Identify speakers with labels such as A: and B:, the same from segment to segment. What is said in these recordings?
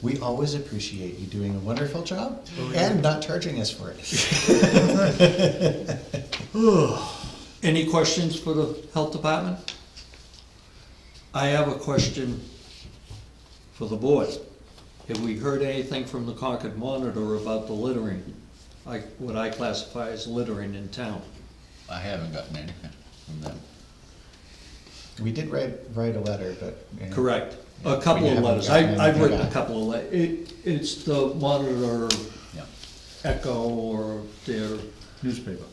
A: We always appreciate you doing a wonderful job and not charging us for it.
B: Any questions for the health department? I have a question for the board. Have we heard anything from the Concord Monitor about the littering? Like, what I classify as littering in town?
C: I haven't gotten anything from them.
A: We did write, write a letter, but. you know,
B: Correct.
A: Yeah,
B: A
A: we
B: couple of
A: haven't
B: letters.
A: gotten
B: I, I've
A: anything
B: written a
A: back.
B: couple of le, it, it's the Monitor
C: Yeah.
B: Echo or their,
D: newspaper.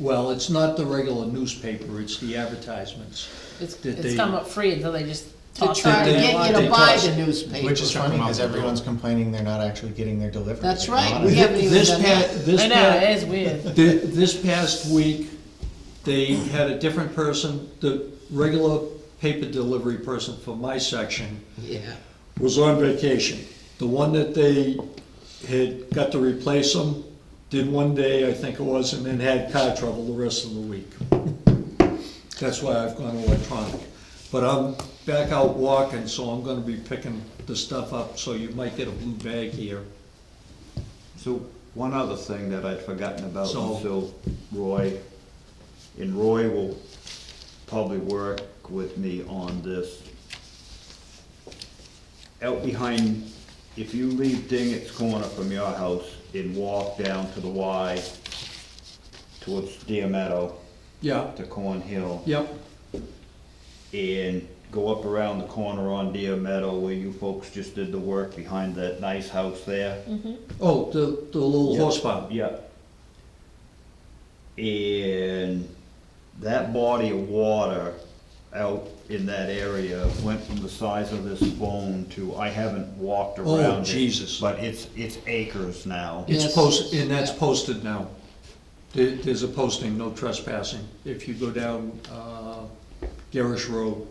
B: well, it's not the regular newspaper, it's the advertisements.
E: It's,
B: Did
E: it's
B: they-
E: come up free until they just
F: To
E: toss it.
F: try to
B: they-
F: Uh, get you
B: they
F: to buy
B: toss-
F: the newspaper.
A: Which is
D: Check
A: funny,
D: them out
A: because
D: the door.
A: everyone's complaining they're not actually getting their delivery.
F: That's
A: They're
F: right,
A: not.
F: we haven't even
B: This
F: done
B: pa-
F: that.
B: this
E: I know,
B: pa-
E: it is weird.
B: Thi- This past week, they had a different person, the regular paper delivery person for my section
F: Yeah,
B: was on vacation. The one that they had got to replace him did one day, I think it was, and then had car trouble the rest of the week. That's why I've gone electronic. But I'm back out walking, so I'm gonna be picking the stuff up, so you might get a blue bag here.
D: So, one other thing that I'd forgotten about
B: So-
D: until Roy, and Roy will probably work with me on this. Out behind, if you leave Dingett's Corner from your house and walk down to the Y towards Deer Meadow,
B: Yeah,
D: to Corn Hill,
B: yep,
D: and go up around the corner on Deer Meadow where you folks just did the work behind that nice house there.
B: oh, the, the little
D: Yeah.
B: horse farm,
D: Yeah. And that body of water out in that area went from the size of this phone to, I haven't walked
B: Oh,
D: around it.
B: Jesus.
D: But it's, it's acres now.
B: it's
F: Yes.
B: posted, and that's posted now. There, there's a posting, no trespassing, if you go down, uh, Garrish Road,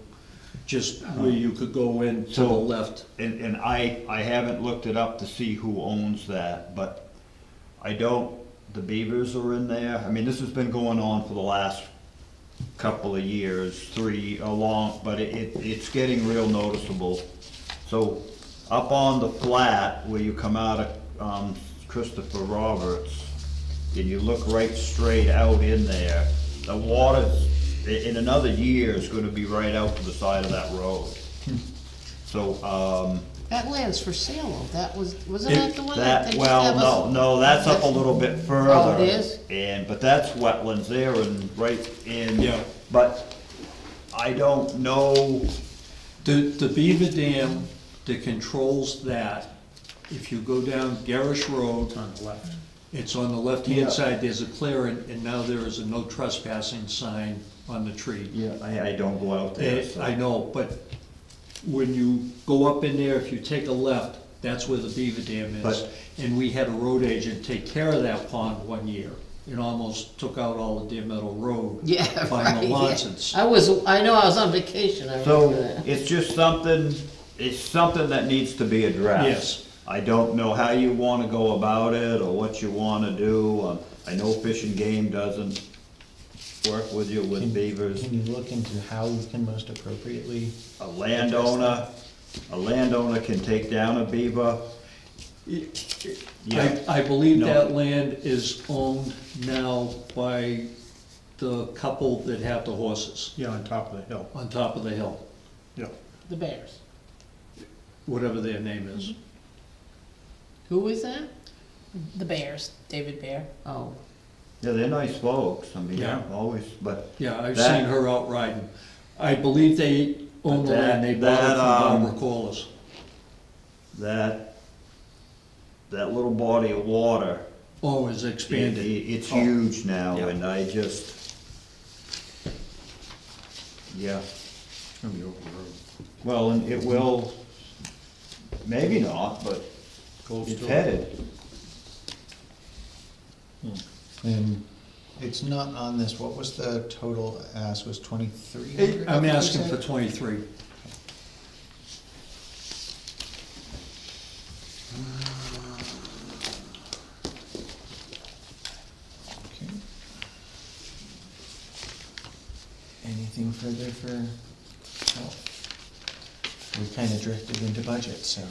B: just where you could go in to the
D: So-
B: left.
D: And, and I, I haven't looked it up to see who owns that, but I don't, the beavers are in there. I mean, this has been going on for the last couple of years, three, along, but it, it- it's getting real noticeable. So up on the flat where you come out of um, Christopher Roberts, and you look right straight out in there, the water's, i- in another year, is gonna be right out to the side of that road. So, um,
F: that land's for sale, though. that was, wasn't that the one that
D: that,
F: they just
D: well,
F: have us?
D: no, no, that's up a little bit further.
F: Oh, it is?
D: And, but that's wetlands there and right in.
B: Yeah.
D: But I don't know,
B: The, the Beaver Dam that controls that, if you go down Garrish Road. On the left. It's on the
D: Yeah.
B: left-hand side, there's a clearing, and now there is a no trespassing sign on the tree.
D: Yeah, I, I don't go out there,
B: Eh,
D: so.
B: I know, but when you go up in there, if you take a left, that's where the beaver dam is.
D: But-
B: And we had a road agent take care of that pond one year. It almost took out all of Deer Meadow Road.
F: Yeah,
B: By
F: right, Oh.
B: Melanson.
F: yeah. I was, I know, I was on vacation, I
D: So,
F: remember that.
D: it's just something, it's something that needs to be addressed.
B: Yes.
D: I don't know how you wanna go about it, or what you wanna do, um, I know Fish and Game doesn't work with you with beavers.
A: Can you look into how we can most appropriately?
D: A landowner, a landowner can take down a beaver. Yeah,
B: I, I believe
D: No.
B: that land is owned now by the couple that have the horses
G: Yeah, on top of the hill,
B: on top of the hill,
G: yeah.
F: The Bears.
B: whatever their name
F: Mm-hmm.
B: is.
F: Who is that?
E: The Bears, David Bear.
F: Oh,
D: yeah, they're nice folks, I mean,
B: Yeah.
D: always, but.
B: Yeah, I've
D: that-
B: seen her out riding. I believe they own the
D: But
B: land, they
D: that-
B: bought
D: that, um,
B: it from Barbara Corliss.
D: That, that little body of water,
B: Oh, it's
D: it-
B: expanded.
D: it- it's
B: Oh.
D: huge now,
B: Yeah.
D: and I just, yeah.
G: It's gonna be over the road.
D: Well, and it will, maybe not, but
G: Gold
D: it's
G: still-
D: headed.
A: And it's not on this, what was the total ask, was twenty-three hundred?
B: I'm asking for twenty-three.
A: Okay. Anything further for, oh, we kind of drifted into budget, so.